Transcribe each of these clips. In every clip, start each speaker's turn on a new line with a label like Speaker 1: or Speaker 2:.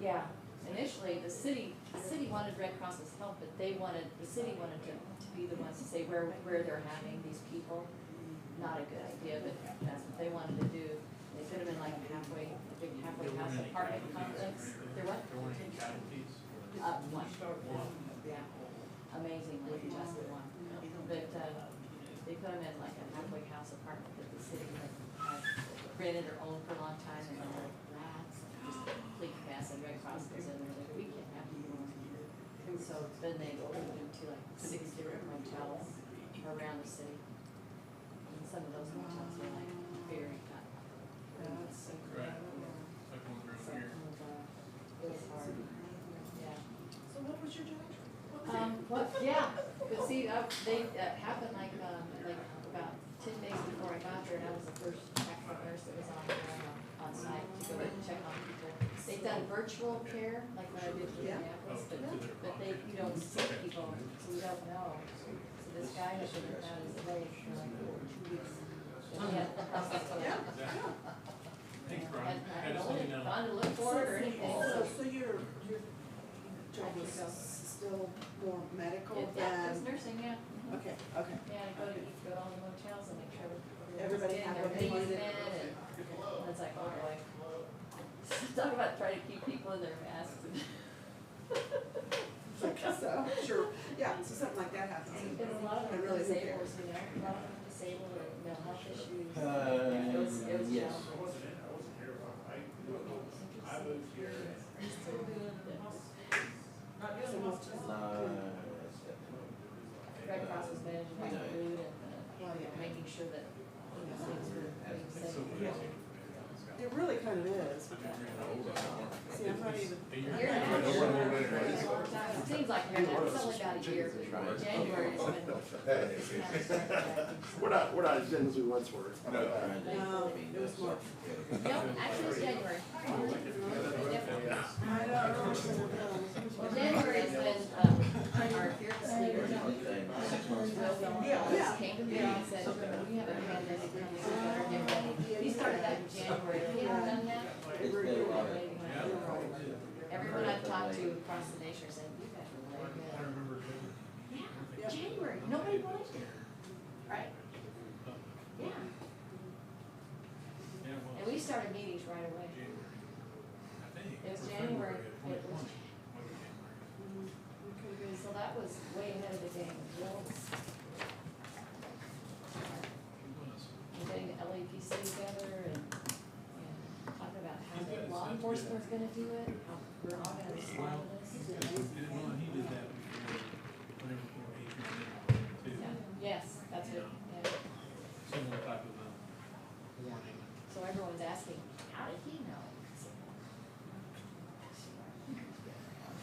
Speaker 1: Yeah, initially, the city, the city wanted Red Cross's help, but they wanted, the city wanted to, to be the ones to say where, where they're having these people. Not a good idea, but that's what they wanted to do. They could have been like halfway, a big halfway
Speaker 2: There
Speaker 1: house
Speaker 2: weren't any
Speaker 1: apartment complex.
Speaker 2: casualties.
Speaker 1: There what?
Speaker 2: There weren't any casualties. or-
Speaker 1: Uh, one, yeah. Amazingly, just the one. But, uh, they put them in like a halfway house apartment that the city had had rented or owned for a long time and there were rats and just a complete mess and Red Cross goes in there like, we can't have people. in here." And so then they opened them to like six different motels around the city. And some of those motels were like very uh, cut. So,
Speaker 2: Right. Like one room
Speaker 1: so,
Speaker 2: here.
Speaker 1: uh, it was hard, yeah.
Speaker 3: So what was your job?
Speaker 1: Um, what, yeah, but see, uh, they, that happened like, um, like about ten days before I got there, and I was the first actual nurse that was on, uh, on site to go and check on people. They've done virtual care, like what I did with
Speaker 3: Yeah.
Speaker 1: Minneapolis,
Speaker 2: Oh,
Speaker 1: but,
Speaker 2: to their
Speaker 1: but they, you don't see people, so you don't know. So this guy had been without his leg for like two weeks. And he had the hospital.
Speaker 3: Yeah.
Speaker 2: Thanks,
Speaker 1: And
Speaker 2: Brian. I just let you
Speaker 1: I don't know, if they'd
Speaker 2: know.
Speaker 1: gone to look for it or anything,
Speaker 3: So,
Speaker 1: so.
Speaker 3: so your, your job was s- still more medical
Speaker 1: Yeah, Yeah, it was
Speaker 3: than?
Speaker 1: nursing, yeah. mhm.
Speaker 3: Okay, okay.
Speaker 1: Yeah, I go to, go to all the motels and make sure everybody's
Speaker 3: Everybody
Speaker 1: in,
Speaker 3: had
Speaker 1: their
Speaker 3: what they
Speaker 1: baby's
Speaker 3: wanted.
Speaker 1: fed, and and it's like, oh boy. Talk about trying to keep people in their masks.
Speaker 3: Like, so, sure, yeah, so something like that happens.
Speaker 1: There's a lot of
Speaker 3: I
Speaker 1: them
Speaker 3: really
Speaker 1: disabled,
Speaker 3: don't care.
Speaker 1: you know, a lot of them disabled with mental health issues.
Speaker 4: Uh,
Speaker 1: It was, it was
Speaker 4: yes.
Speaker 1: challenging.
Speaker 5: I moved here
Speaker 3: So what's-
Speaker 1: Red Cross was managing my food and
Speaker 3: Well,
Speaker 1: uh,
Speaker 3: yeah.
Speaker 1: making sure that, you know, things were being
Speaker 2: It's
Speaker 1: safe.
Speaker 2: so
Speaker 3: Yeah.
Speaker 2: weird.
Speaker 3: It really kind of is. See, I'm not even.
Speaker 1: You're
Speaker 3: I'm
Speaker 1: not
Speaker 3: not
Speaker 1: sure.
Speaker 3: sure.
Speaker 1: It seems like you're, not- it's only about a year, but January is when.
Speaker 6: We're not, we're not as thin as we once were.
Speaker 3: No, it was more.
Speaker 1: Nope, actually it's January.
Speaker 3: I
Speaker 1: Well,
Speaker 3: don't know.
Speaker 1: January is when, um, our fearless leader, Will
Speaker 3: Yeah.
Speaker 1: Willis, came to me and said, we have a pandemic coming, so we better get ready. He started that in January, if he hadn't done that.
Speaker 4: It's been a while.
Speaker 1: Everyone I've talked to across the nation said, you better lay
Speaker 2: I
Speaker 1: good.
Speaker 2: remember.
Speaker 1: Yeah, January, nobody wanted it, right? Yeah,
Speaker 2: Yeah, well,
Speaker 1: and we started meetings right away.
Speaker 2: January. I think.
Speaker 1: It was
Speaker 2: Or
Speaker 1: January.
Speaker 2: February,
Speaker 1: It was-
Speaker 2: 2020. Might be January.
Speaker 1: So that was way ahead of the game,
Speaker 2: It
Speaker 1: Will's
Speaker 2: was.
Speaker 1: and getting the LAPC together and, and talking about how
Speaker 2: Yeah,
Speaker 1: the
Speaker 2: it's
Speaker 1: law
Speaker 2: not
Speaker 1: enforcement's gonna do it, how we're all gonna respond to this.
Speaker 2: Did- well, he did that before, whenever before Adrian did it,
Speaker 1: Yeah,
Speaker 2: too.
Speaker 1: Yes, that's it, yeah.
Speaker 2: Similar type of, um, warning.
Speaker 1: So everyone's asking, how did he know? I said,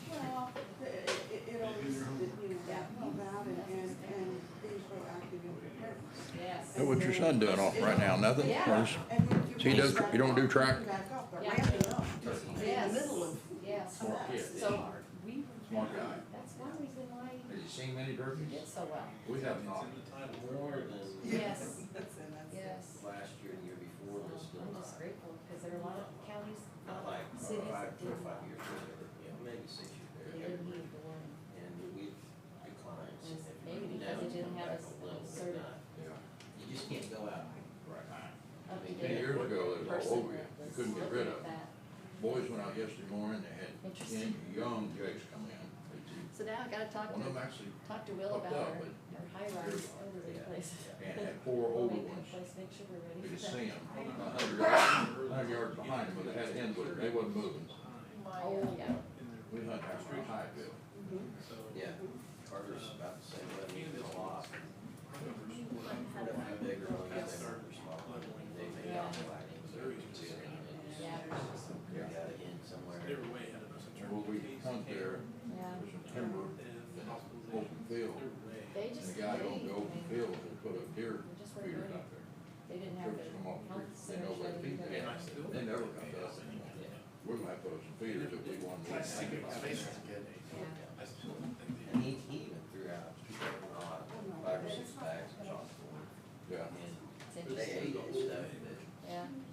Speaker 3: Well, it, it, it always, you know, that about it and, and being proactive and prepared.
Speaker 1: Yes.
Speaker 7: Hey, What's your son doing off right now? Nothing?
Speaker 3: Yeah.
Speaker 7: Or is-
Speaker 3: and then if
Speaker 7: So you
Speaker 3: raise
Speaker 7: don't-
Speaker 3: back
Speaker 7: you don't do
Speaker 3: up,
Speaker 7: track?
Speaker 3: Back up, but
Speaker 1: Yeah.
Speaker 3: ramping up, just in the
Speaker 1: Yes.
Speaker 3: middle of.
Speaker 1: Yes,
Speaker 3: of that.
Speaker 1: so we,
Speaker 4: Smart guy.
Speaker 1: that's one reason why
Speaker 4: Have you seen many
Speaker 1: we
Speaker 4: burpees?
Speaker 1: did so well.
Speaker 4: We have
Speaker 2: It's
Speaker 4: not.
Speaker 2: in the title.
Speaker 4: More than
Speaker 1: Yes.
Speaker 3: That's it, that's it.
Speaker 1: Yes.
Speaker 4: last year, the year
Speaker 1: So
Speaker 4: before, but still
Speaker 1: I'm just
Speaker 4: not.
Speaker 1: grateful, because there are a lot of counties, a
Speaker 4: Not
Speaker 1: lot
Speaker 4: like
Speaker 1: of cities
Speaker 4: four or five,
Speaker 1: that
Speaker 4: four or
Speaker 1: didn't,
Speaker 4: five years later, yeah, maybe six years
Speaker 1: they
Speaker 4: later.
Speaker 1: didn't need the warning.
Speaker 4: And we've declined
Speaker 1: It's
Speaker 4: significantly.
Speaker 1: Maybe
Speaker 4: Now
Speaker 1: because it
Speaker 4: it's
Speaker 1: didn't
Speaker 4: come
Speaker 1: have a s-
Speaker 4: back a little, but
Speaker 1: certain
Speaker 4: not- You just can't go out. Right.
Speaker 1: up to
Speaker 4: Ten
Speaker 1: date
Speaker 7: years ago, it was all
Speaker 1: person
Speaker 7: over you.
Speaker 1: that
Speaker 7: You
Speaker 1: was
Speaker 7: couldn't get rid
Speaker 1: looking at
Speaker 7: of
Speaker 1: that.
Speaker 7: Boys went out yesterday morning, they had ten young jakes come in. They
Speaker 1: So now I gotta
Speaker 7: said,
Speaker 1: talk
Speaker 7: One of them
Speaker 1: to,
Speaker 7: actually,
Speaker 1: talk to Will
Speaker 7: Fucked
Speaker 1: about our,
Speaker 7: up, but-
Speaker 1: our hierarchy over the
Speaker 4: Yeah.
Speaker 1: place.
Speaker 7: and had four older
Speaker 1: Make that
Speaker 7: ones.
Speaker 1: place, make sure we're ready for
Speaker 7: You could
Speaker 1: that.
Speaker 7: see them, a hundred yards, a hundred yards behind them, but they had hens with her. They wasn't moving.
Speaker 1: Oh, yeah.
Speaker 2: In their-
Speaker 7: We hunted after a high bill.
Speaker 2: So.
Speaker 4: Yeah, Carter's about the same level as a lot.
Speaker 1: How do I-
Speaker 4: How big or what, they were smaller, they may not like it, but they're considering it.
Speaker 1: Yeah,
Speaker 4: You gotta end somewhere.
Speaker 2: They were way ahead of us in terms
Speaker 7: Well,
Speaker 2: of.
Speaker 7: we
Speaker 2: case
Speaker 7: hunt there,
Speaker 1: yeah.
Speaker 7: there's some timber,
Speaker 2: And
Speaker 7: Yeah.
Speaker 2: hospitalization.
Speaker 7: open field,
Speaker 2: They're way.
Speaker 1: They
Speaker 7: and
Speaker 1: just,
Speaker 7: the
Speaker 1: they,
Speaker 7: guy
Speaker 1: I
Speaker 7: on the open
Speaker 1: mean,
Speaker 7: field and put a deer
Speaker 1: they just weren't
Speaker 7: feeder
Speaker 1: ready.
Speaker 7: out there.
Speaker 1: They didn't have
Speaker 7: Trips come off,
Speaker 1: the health
Speaker 7: they know
Speaker 1: centers
Speaker 7: where
Speaker 1: ready
Speaker 7: to feed
Speaker 1: to
Speaker 7: them.
Speaker 2: And I still.
Speaker 7: They never come to us anymore. We're gonna have to put some feeders if we want to.
Speaker 1: Yeah.
Speaker 2: I still don't think they.
Speaker 4: And he, he even threw out, he threw out five or six bags of chocolate.
Speaker 7: Yeah.
Speaker 4: And
Speaker 1: It's
Speaker 4: they
Speaker 1: interesting,
Speaker 4: ate it and stuff, but
Speaker 1: yeah.